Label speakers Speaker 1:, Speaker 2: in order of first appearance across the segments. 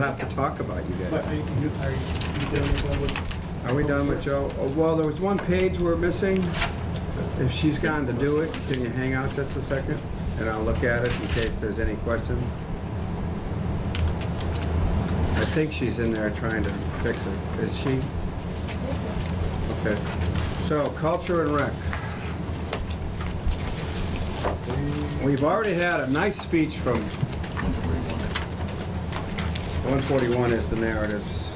Speaker 1: have to talk about, you
Speaker 2: But
Speaker 1: guys.
Speaker 2: are you, are you you done with that one?
Speaker 1: Are we done with Joe? Oh, Well, there was one page we're missing. If she's gone to do it, can you hang out just a second? And I'll look at it in case there's any questions. I think she's in there trying to fix it. Is she? Okay. So, culture and rec. We've already had a nice speech from... 141 is the narratives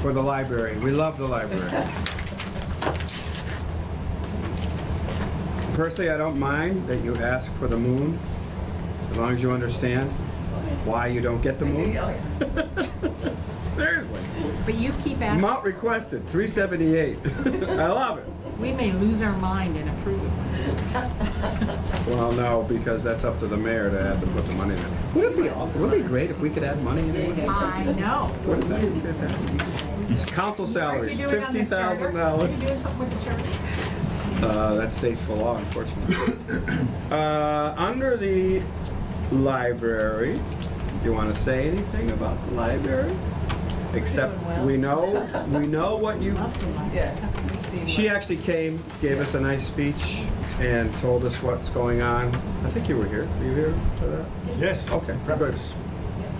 Speaker 1: for the library. We love the library. Personally, I don't mind that you ask for the moon, as long as you understand why you don't get the moon. Seriously.
Speaker 3: But you keep asking,
Speaker 1: Amount requested, 378. I love it.
Speaker 3: we may lose our mind and approve it.
Speaker 1: Well, no, because that's up to the mayor to have to put the money in. Would it be, aw- would it be great if we could add money in? it?
Speaker 3: I know.
Speaker 1: Wouldn't that be fantastic? Council salaries, fifty thousand dollars.
Speaker 3: Are you doing something with the charter?
Speaker 1: Uh, that's stateful law, unfortunately. Uh, under the library, you want to say anything about the library? Except we know, we know what you, she actually came, gave us a nice speech and told us what's going on. I think you were here. Were you here for that?
Speaker 2: Yes,
Speaker 1: Okay, good.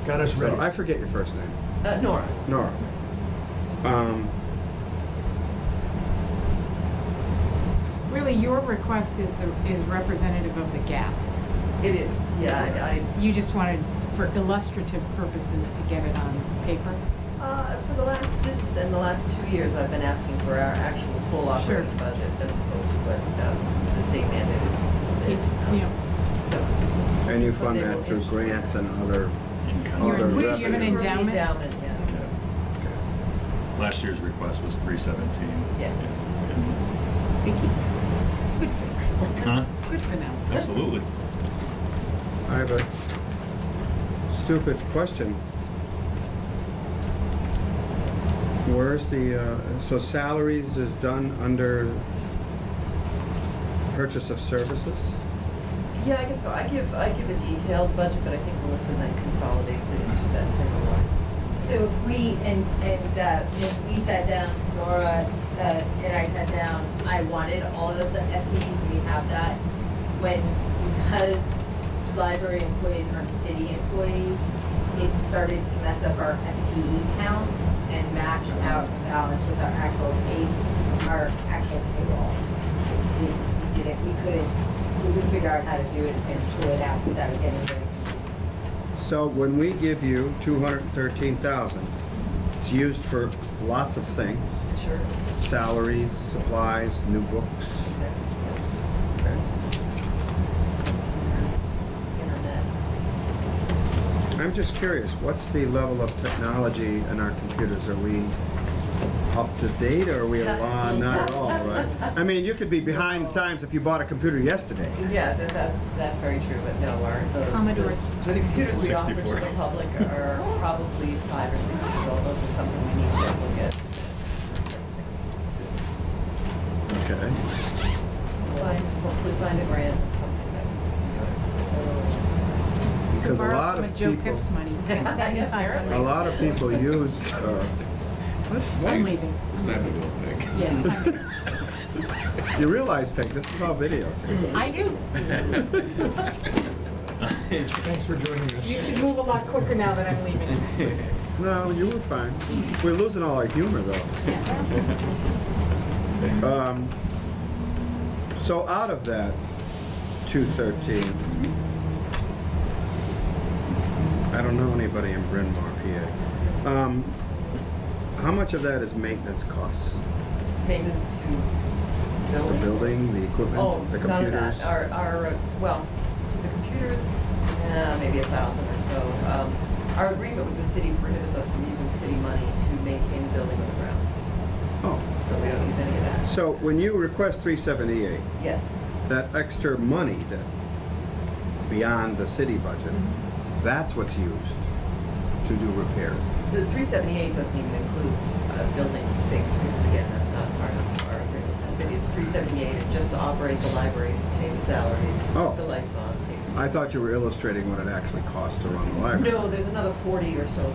Speaker 2: got us
Speaker 1: So I
Speaker 2: ready.
Speaker 1: forget your first name.
Speaker 4: Uh, Nora.
Speaker 1: Nora. Um,
Speaker 3: Really, your request is the, is representative of the gap.
Speaker 4: It is, yeah, I,
Speaker 3: You just wanted, for illustrative purposes, to get it on paper.
Speaker 4: I, uh, for the last, this and the last two years, I've been asking for our actual full operating
Speaker 3: Sure.
Speaker 4: budget as opposed to what, um, the state mandated.
Speaker 3: You-
Speaker 4: Um,
Speaker 3: you know,
Speaker 4: So,
Speaker 1: and you fund that through grants and other,
Speaker 3: You're-
Speaker 1: other
Speaker 3: we give an
Speaker 1: revenues.
Speaker 4: for the
Speaker 3: endowment?
Speaker 4: endowment, yeah.
Speaker 5: uh, Last year's request was three seventeen.
Speaker 4: Yeah.
Speaker 3: Vicky, good for,
Speaker 5: Huh?
Speaker 3: good for them.
Speaker 5: Absolutely.
Speaker 1: I have a stupid question. Where's the, uh, so salaries is done under purchase of services?
Speaker 4: Yeah, I guess so. I give, I give a detailed budget, but I think Melissa then consolidates it into that single line.
Speaker 6: So if we, and, and, uh, if we sat down, Laura, uh, and I sat down, I wanted all of the FTEs, we have that. When, because library employees aren't city employees, it started to mess up our FTE count and match out the balance with our actual pay, our actual payroll. We we didn't, we couldn't, we couldn't figure out how to do it and pull it out without getting very consistent.
Speaker 1: So when we give you two hundred and thirteen thousand, it's used for lots of things,
Speaker 4: Sure.
Speaker 1: salaries, supplies, new books. Okay.
Speaker 4: Internet.
Speaker 1: I'm just curious, what's the level of technology in our computers? Are we up to date or are we along? Not at all, right? I mean, you could be behind the times if you bought a computer yesterday.
Speaker 4: Yeah, that, that's, that's very true, but no, our, the-
Speaker 3: Commodore
Speaker 4: the, the computers we offer to
Speaker 5: 64.
Speaker 4: the public are probably five or six years old, those are something we need to look at. replacing.
Speaker 1: Okay.
Speaker 4: Find, hopefully find a grant or something that.
Speaker 1: Because a
Speaker 3: Borrow
Speaker 1: lot
Speaker 3: some
Speaker 1: of
Speaker 3: Joe
Speaker 1: people,
Speaker 3: Pip's money, he's got
Speaker 4: Yeah,
Speaker 3: $7,500.
Speaker 1: a lot of people use, uh,
Speaker 3: I'm leaving.
Speaker 5: It's time to go, Nick.
Speaker 3: Yes, I'm leaving.
Speaker 1: you realize, Peg, this is all video.
Speaker 3: I do.
Speaker 2: Thanks for joining us.
Speaker 3: You should move a lot quicker now that I'm leaving.
Speaker 1: No, you were fine. We're losing all our humor, though. Um, So out of that 213, I don't know anybody in Bryn Mawr, PA. Um, How much of that is maintenance costs?
Speaker 4: Maintenance to
Speaker 1: The
Speaker 4: building?
Speaker 1: building, the
Speaker 4: Oh,
Speaker 1: equipment, the
Speaker 4: none of
Speaker 1: computers?
Speaker 4: that, our, our, uh, well, to the computers, eh, maybe a thousand or so. Um, Our agreement with the city prohibits us from using city money to maintain the building or the grounds,
Speaker 1: Oh,
Speaker 4: so we don't use any of that.
Speaker 1: so when you request 378,
Speaker 4: Yes.
Speaker 1: that extra money that, beyond the city budget,
Speaker 4: Mm-hmm.
Speaker 1: that's what's used to do repairs?
Speaker 4: The three seventy-eight doesn't even include uh, building things, because again, that's not part of our agreement with the city. Three seventy-eight is just to operate the libraries, pay the salaries,
Speaker 1: Oh.
Speaker 4: keep the lights on. pay-
Speaker 1: I thought you were illustrating what it actually costs to run the library.
Speaker 4: No, there's another forty or so